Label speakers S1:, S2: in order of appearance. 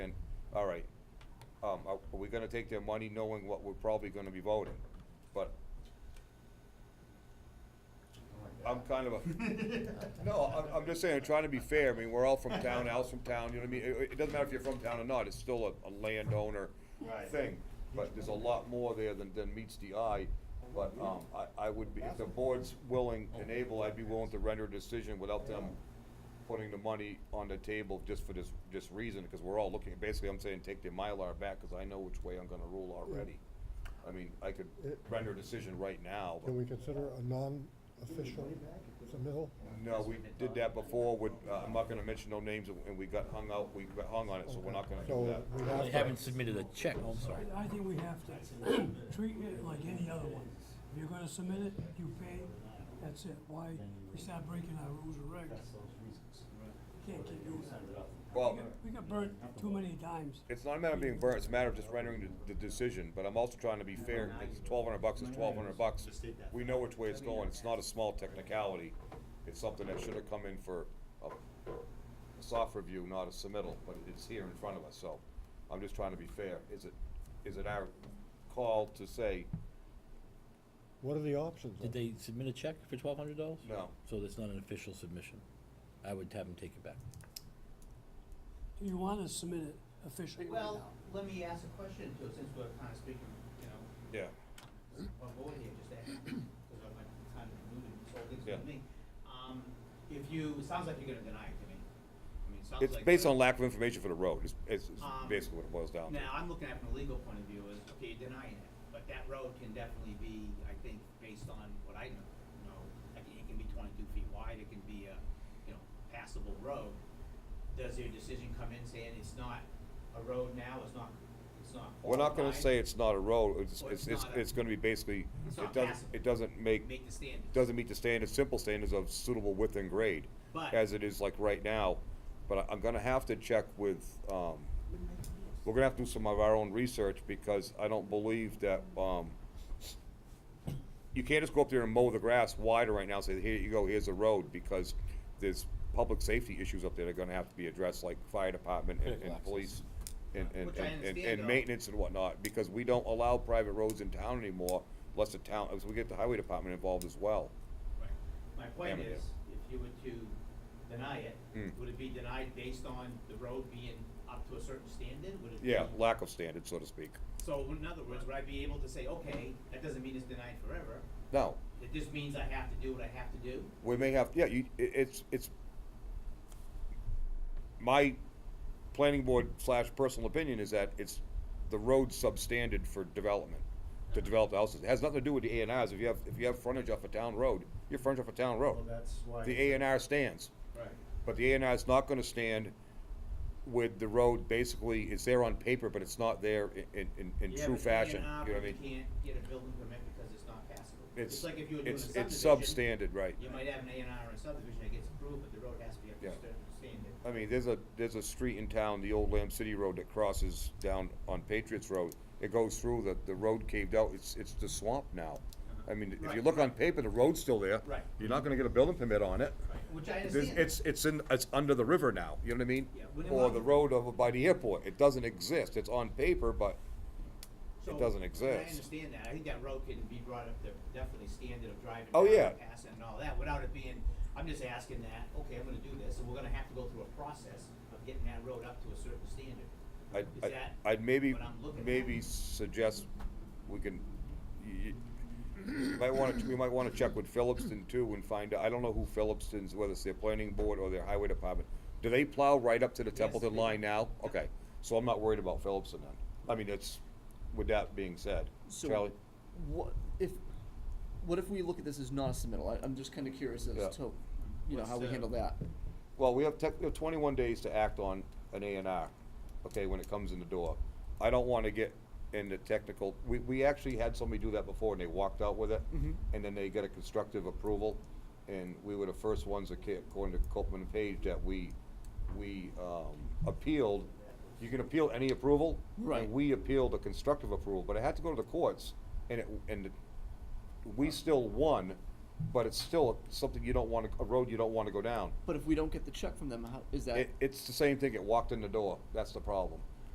S1: all right, um, are are we gonna take their money knowing what we're probably gonna be voting? But I'm kind of a, no, I'm, I'm just saying, I'm trying to be fair, I mean, we're all from town, Al's from town, you know what I mean? It, it doesn't matter if you're from town or not, it's still a, a landowner
S2: Right.
S1: thing. But there's a lot more there than, than meets the eye, but, um, I, I would be, if the board's willing and able, I'd be willing to render a decision without them putting the money on the table just for this, this reason, because we're all looking, basically, I'm saying, take the Mylar back, because I know which way I'm gonna rule already. I mean, I could
S3: It-
S1: render a decision right now, but.
S3: Can we consider a non-official submittal?
S1: No, we did that before with, uh, I'm not gonna mention no names, and we got hung out, we got hung on it, so we're not gonna do
S3: So we
S1: that.
S3: have
S4: They
S3: to-
S4: haven't submitted a check, oh, I'm sorry.
S5: I think we have to treat it like any other one. If you're gonna submit it, you pay, that's it. Why, we start breaking our rules and regs. Can't keep doing that.
S1: Well,
S5: We got burnt too many times.
S1: it's not a matter of being burnt, it's a matter of just rendering the, the decision, but I'm also trying to be fair, it's twelve hundred bucks, it's twelve hundred bucks. We know which way it's going, it's not a small technicality, it's something that should have come in for a, a soft review, not a submittal, but it's here in front of us, so. I'm just trying to be fair, is it, is it our call to say,
S3: What are the options?
S4: Did they submit a check for twelve hundred dollars?
S1: no,
S4: So that's not an official submission. I would have them take it back.
S5: Do you wanna submit it officially right
S6: Well,
S5: now?
S6: let me ask a question, too, since we're kind of speaking, you know,
S1: yeah,
S6: on board here, just that, because of my time to move and this whole thing's
S1: Yeah.
S6: with me. Um, if you, it sounds like you're gonna deny it to me. I mean, it sounds
S1: it's
S6: like-
S1: based on lack of information for the road, it's, it's it's
S6: Um,
S1: basically what it boils down to.
S6: Now, I'm looking at it from a legal point of view, is, okay, you're denying it, but that road can definitely be, I think, based on what I know, you know, like, it can be twenty-two feet wide, it can be a, you know, passable road. Does your decision come in saying it's not a road now, it's not, it's not
S1: We're not gonna
S6: qualified?
S1: say it's not a road, it's,
S6: Or
S1: it's,
S6: it's
S1: it's,
S6: not a-
S1: it's gonna be basically,
S6: It's
S1: it
S6: not
S1: doesn't,
S6: passable.
S1: it doesn't make,
S6: Make the standards.
S1: doesn't meet the standards, simple standards of suitable width and grade,
S6: But-
S1: as it is like right now. But I- I'm gonna have to check with, um, we're gonna have to do some of our own research, because I don't believe that, um, you can't just go up there and mow the grass wider right now, and say, here you go, here's a road, because there's public safety issues up there that are gonna have to be addressed, like fire department and,
S4: Critical
S1: and
S4: access.
S1: police and, and,
S6: Which I
S1: and, and-
S6: understand,
S1: and
S6: though.
S1: maintenance and whatnot, because we don't allow private roads in town anymore, unless the town, as we get the highway department involved as well.
S6: Right. My point
S1: Avenue.
S6: is, if you were to deny it,
S1: Mm.
S6: would it be denied based on the road being up to a certain standard? Would it be?
S1: Yeah, lack of standards, so to speak.
S6: So in other words, would I be able to say, okay, that doesn't mean it's denied forever,
S1: No,
S6: it just means I have to do what I have to do?
S1: we may have, yeah, you, it, it's, it's, my planning board slash personal opinion is that it's, the road's substandard for development, to develop the houses. It has nothing to do with the A and Rs. If you have, if you have frontage off a town road, you're frontage off a town road.
S2: Well, that's why.
S1: Oh, The A and R stands.
S6: Right.
S1: But the A and R is not gonna stand with the road, basically, it's there on paper, but it's not there i- in, in, in true fashion, you know what I
S6: You
S1: mean?
S6: can't get a building permit because it's not passable.
S1: It's,
S6: Just like if you were doing a
S1: it's, it's
S6: subdivision,
S1: substandard, right.
S6: You might have an A and R in a subdivision that gets approved, but the road has to be up to a
S1: Yeah.
S6: certain standard.
S1: I mean, there's a, there's a street in town, the old Lamb City Road that crosses down on Patriots Road. It goes through, the, the road caved out, it's, it's the swamp now. I mean, if you
S6: Uh-huh. Right.
S1: look on paper, the road's still there.
S6: Right.
S1: You're not gonna get a building permit on it.
S6: Which I
S1: There's,
S6: understand.
S1: it's, it's in, it's under the river now, you know what I mean?
S6: Yeah, when it
S1: Or
S6: was-
S1: the road over by the airport, it doesn't exist, it's on paper, but
S6: So,
S1: doesn't
S6: and
S1: exist.
S6: I understand that, I think that road can be brought up to definitely standard of driving.
S1: Oh,
S6: down
S1: yeah.
S6: and Passing and all that, without it being, I'm just asking that, okay, I'm gonna do this, and we're gonna have to go through a process of getting that road up to a certain standard.
S1: I'd,
S6: Is
S1: I'd-
S6: that
S1: I'd maybe,
S6: what I'm looking at?
S1: maybe suggest we can, y- y- might wanna, we might wanna check with Phillipston too and find, out. I don't know who Phillipston's, whether it's their planning board or their highway department. Do they plow right up to the
S6: Yes,
S1: Templeton
S6: they do.
S1: line now? Okay, so I'm not worried about Phillipston then. I mean, it's, with that being said, Charlie?
S7: So, what if, what if we look at this as not a submittal? I, I'm just kinda curious
S1: Yeah.
S7: as to, you know,
S6: What's
S7: how we
S6: the-
S7: handle that.
S1: Well, we have tech, we have twenty-one days to act on an A and R, okay, when it comes in the door. I don't wanna get into technical, we, we actually had somebody do that before and they walked out with it. And then they got a constructive approval, and we were the first ones that, ca- according to Copman and Page, that we, we, um, appealed. You can appeal any approval.
S7: Right.
S1: And we appealed a constructive approval, but it had to go to the courts, and it, and we still won, but it's still something you don't wanna, a road you don't wanna go down.
S7: But if we don't get the check from them, how, is that?
S1: It, it's the same thing, it walked in the door, that's the problem.